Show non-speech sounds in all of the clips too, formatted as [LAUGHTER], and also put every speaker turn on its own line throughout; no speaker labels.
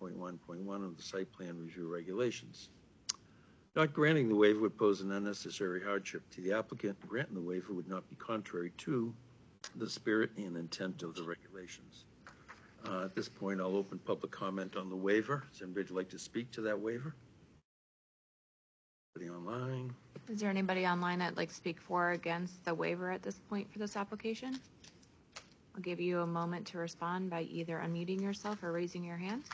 3.1.1 of the site plan review regulations. Not granting the waiver would pose an unnecessary hardship to the applicant. Granting the waiver would not be contrary to the spirit and intent of the regulations. Uh, At this point, I'll open public comment on the waiver. Does anybody like to speak to that waiver? Anybody online?
Is there anybody online that'd like to speak for or against the waiver at this point for this application? I'll give you a moment to respond by either unmuting yourself or raising your hand.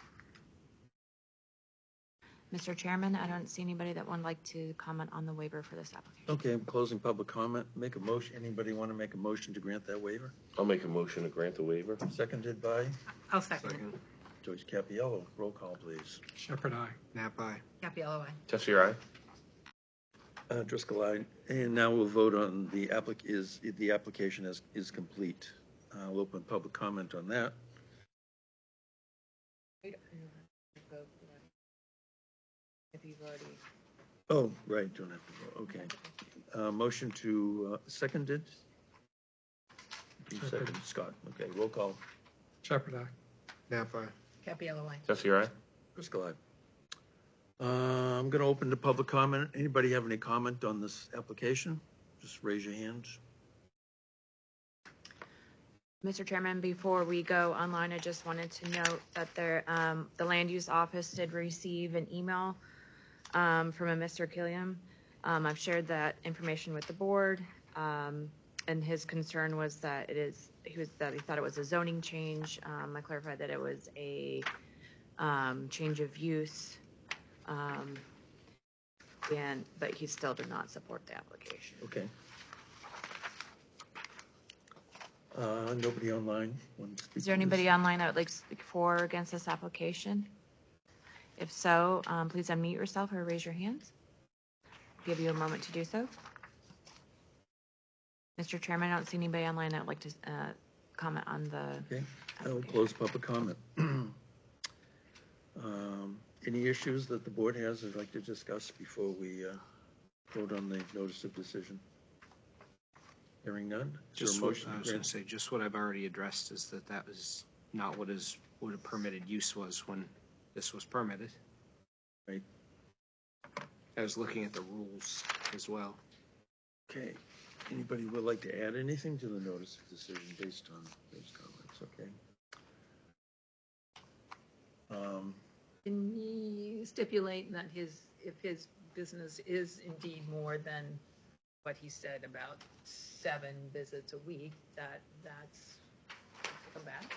Mr. Chairman, I don't see anybody that would like to comment on the waiver for this application.
Okay, I'm closing public comment. Make a motion. Anybody want to make a motion to grant that waiver?
I'll make a motion to grant the waiver.
Seconded by
I'll second.
Joyce Capiello. Roll call, please.
Shepherd, I.
Nap eye.
Capella, aye.
Tessie, aye?
Uh, Driscoll, aye. And now we'll vote on the applic, is, the application is, is complete. I'll open public comment on that.
If you've already.
Oh, right, don't have to vote, okay. Uh, motion to, uh, seconded? You
Second.
seconded, Scott, okay, roll call.
Shepherd, I.
Nap eye.
Capella, aye.
Tessie, aye?
Driscoll, aye. Uh, I'm gonna open to public comment. Anybody have any comment on this application? Just raise your hand.
Mr. Chairman, before we go online, I just wanted to note that there, um, the land use office did receive an email um, from a Mr. Killiam. Um, I've shared that information with the board, um, and his concern was that it is, he was, that he thought it was a zoning change. Um, I clarified that it was a, um, change of use. Um, and, but he still did not support the application.
Okay. Uh, nobody online? wants to
Is there
speak to this?
anybody online that would like to speak for or against this application? If so, um, please unmute yourself or raise your hands. Give you a moment to do so. Mr. Chairman, I don't see anybody online that would like to uh, comment on the.
Okay, I will
application.
close public comment. [CLEARS THROAT] Um, Any issues that the board has they'd like to discuss before we uh, vote on the notice of decision? Hearing none? Is there a
Just uh,
motion
what,
to
I was gonna
grant-
say, just what I've already addressed is that that was not what is, what a permitted use was when this was permitted.
Right.
I was looking at the rules as well.
Okay, anybody would like to add anything to the notice of decision based on those comments, okay? Um,
Can he stipulate that his, if his business is indeed more than what he said about seven visits a week, that that's come back?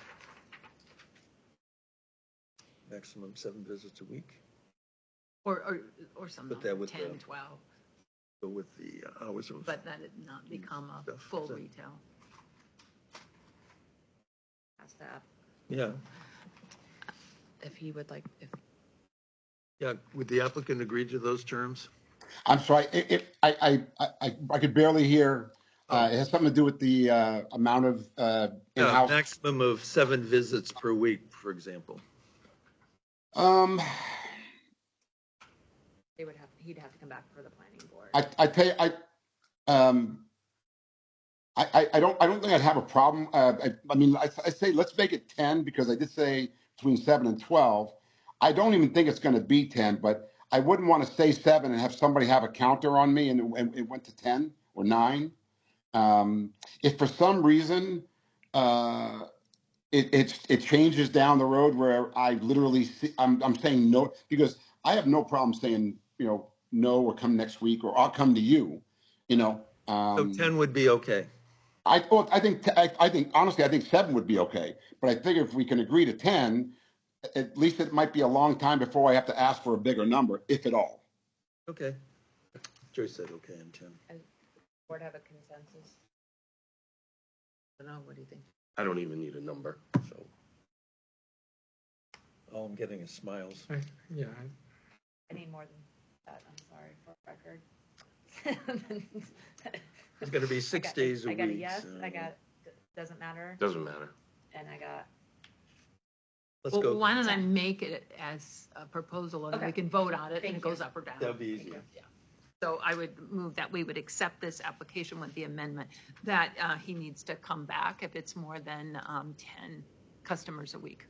Maximum seven visits a week,
Or, or, or some
But
number,
that would, uh,
ten, twelve,
go with the uh, hours of.
but that it not
Mm-hmm.
become a
Stuff,
full
so-
retail.
Ask the app
Yeah,
If he would like, if
yeah, would the applicant agree to those terms?
I'm sorry, it, it, I, I- I, I, I could barely hear. Uh, it has something to do with the, uh, amount of, uh,
Yeah,
in-house.
maximum of seven visits per week, for example.
Um,
they would have, he'd have to come back for the planning board.
I, I tell you, I, um, I, I, I don't, I don't think I'd have a problem. Uh, I, I mean, I, I say, let's make it ten because I did say between seven and twelve. I don't even think it's gonna be ten, but I wouldn't want to say seven and have somebody have a counter on me and, and it went to ten or nine. Um, if for some reason, uh, it, it, it changes down the road where I literally see, I'm, I'm saying no, because I have no problem saying, you know, no, or come next week, or I'll come to you, you know.
So
Um,
10 would be okay.
I thought, I think, I, I think, honestly, I think seven would be okay. But I figure if we can agree to 10, at least it might be a long time before I have to ask for a bigger number, if at all.
Okay. Joyce said okay on 10.
Board have a consensus?
I don't know, what do you think?
I don't even need a number, so.
All I'm getting is smiles.
I- Yeah, I-
I need more than that, I'm sorry, for record.
It's going to be
I
six
got-
days a week.
I got a yes,
so
I got, doesn't matter,
Doesn't matter.
and I got,
Let's
Well,
go.
why don't I make it as a proposal and we
Okay.
can vote on it and
Thank
it goes
you.
up or down.
That'd be easier.
Yeah. So I would move that we would accept this application with the amendment that uh, he needs to come back if it's more than um, 10 customers a week.